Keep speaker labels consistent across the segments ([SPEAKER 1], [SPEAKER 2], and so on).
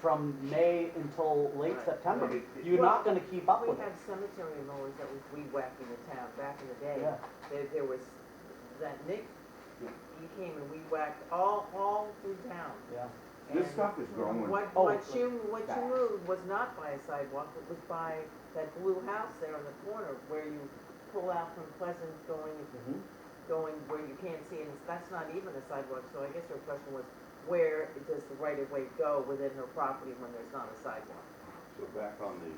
[SPEAKER 1] from May until late
[SPEAKER 2] Right.
[SPEAKER 1] September.
[SPEAKER 2] Right.
[SPEAKER 1] You're not gonna keep up
[SPEAKER 3] We
[SPEAKER 1] with it.
[SPEAKER 3] had cemetery mowers that was weed whacking the town back in the day.
[SPEAKER 1] Yeah.
[SPEAKER 3] There, there was, that Nick,
[SPEAKER 2] Yeah.
[SPEAKER 3] he came and weed whacked all, all through town.
[SPEAKER 1] Yeah.
[SPEAKER 2] This
[SPEAKER 3] And
[SPEAKER 2] stuff is growing.
[SPEAKER 3] What,
[SPEAKER 1] Oh,
[SPEAKER 3] what
[SPEAKER 1] it's
[SPEAKER 3] you, what
[SPEAKER 2] back.
[SPEAKER 3] you moved was not by a sidewalk, it was by that blue house there on the corner where you pull out from Pleasant going,
[SPEAKER 1] Mhm.
[SPEAKER 3] going where you can't see, and that's not even a sidewalk, so I guess her question was, where does the right of way go within her property when there's not a sidewalk?
[SPEAKER 4] So back on the,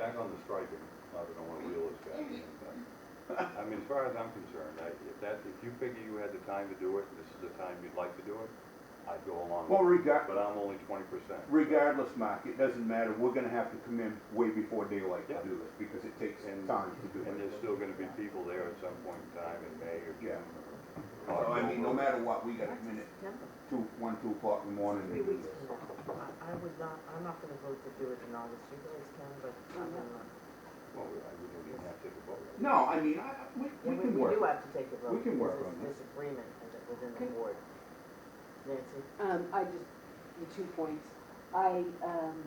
[SPEAKER 4] back on the striking, not that I wanna wheel this back in, but, I mean, as far as I'm concerned, I, if that, if you figure you had the time to do it, and this is the time you'd like to do it, I'd go along
[SPEAKER 2] Well,
[SPEAKER 4] with it,
[SPEAKER 2] regard,
[SPEAKER 4] but I'm only twenty percent.
[SPEAKER 2] regardless, Mark, it doesn't matter, we're gonna have to come in way before daylight to
[SPEAKER 4] Yeah.
[SPEAKER 2] do this, because it takes
[SPEAKER 4] And-
[SPEAKER 2] time to do
[SPEAKER 4] And
[SPEAKER 2] it.
[SPEAKER 4] there's still gonna be people there at some point in time in May or June.
[SPEAKER 2] Yeah.
[SPEAKER 4] or
[SPEAKER 2] So I mean, no
[SPEAKER 4] October.
[SPEAKER 2] matter what, we gotta
[SPEAKER 3] That's
[SPEAKER 2] come in at
[SPEAKER 3] September.
[SPEAKER 2] two, one, two o'clock in the morning
[SPEAKER 3] Three
[SPEAKER 2] to do
[SPEAKER 3] weeks
[SPEAKER 2] this.
[SPEAKER 3] from now. I, I would not, I'm not gonna vote to do it in August, you guys can, but I'm not.
[SPEAKER 4] Well, we- I- we don't even have to take a vote. right?
[SPEAKER 2] No, I mean, I, we,
[SPEAKER 3] We,
[SPEAKER 2] we can
[SPEAKER 3] we
[SPEAKER 2] work.
[SPEAKER 3] do have to take a vote.
[SPEAKER 2] We can work
[SPEAKER 3] because
[SPEAKER 2] on
[SPEAKER 3] it's Disagreement in- within the
[SPEAKER 5] Okay.
[SPEAKER 3] board. Nancy?
[SPEAKER 5] Um, I just, the two points. I, um,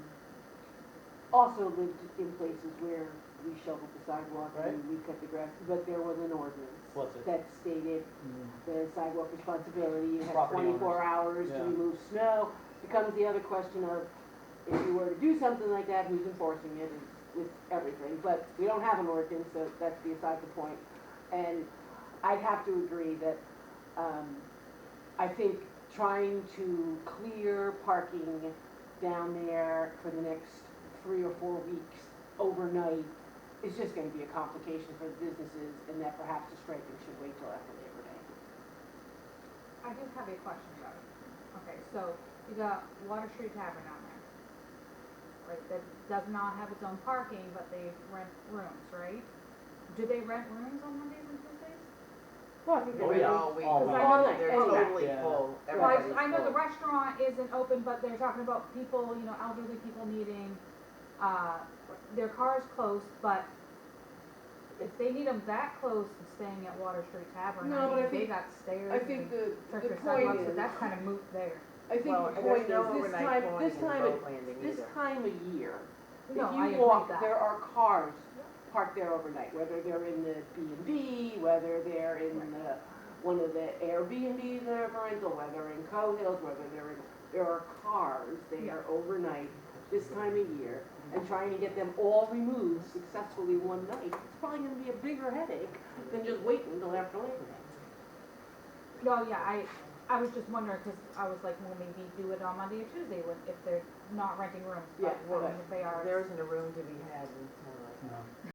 [SPEAKER 5] also lived in places where we shoveled the sidewalk and we cut the grass, but there was an ordinance
[SPEAKER 1] What's it?
[SPEAKER 5] that stated
[SPEAKER 1] Mm-hmm.
[SPEAKER 5] the sidewalk responsibility, you have
[SPEAKER 1] Property owners.
[SPEAKER 5] twenty-four hours to
[SPEAKER 1] Yeah.
[SPEAKER 5] remove snow. Becomes the other question of, if you were to do something like that, who's enforcing it and with everything? But we don't have an ordinance, so that's beside the point. And I'd have to agree that, um, I think trying to clear parking down there for the next three or four weeks overnight is just gonna be a complication for the businesses and that perhaps the striping should wait till after Labor Day.
[SPEAKER 6] I do have a question about it. Okay, so you got Water Street Tavern on there. Right, that does not have its own parking, but they rent rooms, right? Do they rent rooms on Mondays and Tuesdays?
[SPEAKER 5] Well, I think
[SPEAKER 1] Oh, yeah.
[SPEAKER 3] All week.
[SPEAKER 1] All
[SPEAKER 5] week.
[SPEAKER 3] They're-
[SPEAKER 5] All night,
[SPEAKER 3] They're
[SPEAKER 5] anyway.
[SPEAKER 3] totally
[SPEAKER 1] Yeah.
[SPEAKER 3] full.
[SPEAKER 6] Well, I,
[SPEAKER 3] Everybody's
[SPEAKER 6] I know the
[SPEAKER 3] full.
[SPEAKER 6] restaurant isn't open, but they're talking about people, you know, elderly people needing, uh, their cars close, but if they need them that close and staying at Water Street Tavern,
[SPEAKER 5] No, but I
[SPEAKER 6] I mean, they
[SPEAKER 5] think-
[SPEAKER 6] got stairs
[SPEAKER 5] I think
[SPEAKER 6] and
[SPEAKER 5] the, the
[SPEAKER 6] circus
[SPEAKER 5] point
[SPEAKER 6] sidewalks, so
[SPEAKER 5] is,
[SPEAKER 6] that's kind of moot there.
[SPEAKER 5] I think
[SPEAKER 3] Well,
[SPEAKER 5] the
[SPEAKER 3] and
[SPEAKER 5] point
[SPEAKER 3] there's
[SPEAKER 5] is,
[SPEAKER 3] no
[SPEAKER 5] this
[SPEAKER 3] overnight
[SPEAKER 5] time,
[SPEAKER 3] going
[SPEAKER 5] this
[SPEAKER 3] in
[SPEAKER 5] time,
[SPEAKER 3] boat
[SPEAKER 5] of-
[SPEAKER 3] landing
[SPEAKER 5] this
[SPEAKER 3] either.
[SPEAKER 5] time of year, if
[SPEAKER 6] No, I
[SPEAKER 5] you
[SPEAKER 6] agree
[SPEAKER 5] walk,
[SPEAKER 6] with that.
[SPEAKER 5] there are cars
[SPEAKER 6] Yeah.
[SPEAKER 5] parked there overnight, whether they're in the B and B, whether they're in the, one of the Airbnbs that are rental, whether in Cohills, whether they're in, there are cars there overnight this time of year, and trying to get them all removed successfully one night, it's probably gonna be a bigger headache than just waiting until after Labor Day.
[SPEAKER 6] No, yeah, I, I was just wondering, because I was like, well, maybe do it on Monday or Tuesday when, if they're not renting rooms, but
[SPEAKER 5] Yeah,
[SPEAKER 6] well,
[SPEAKER 3] right.
[SPEAKER 6] if they are. it's-
[SPEAKER 3] There isn't a room to be had in town right now.
[SPEAKER 1] No.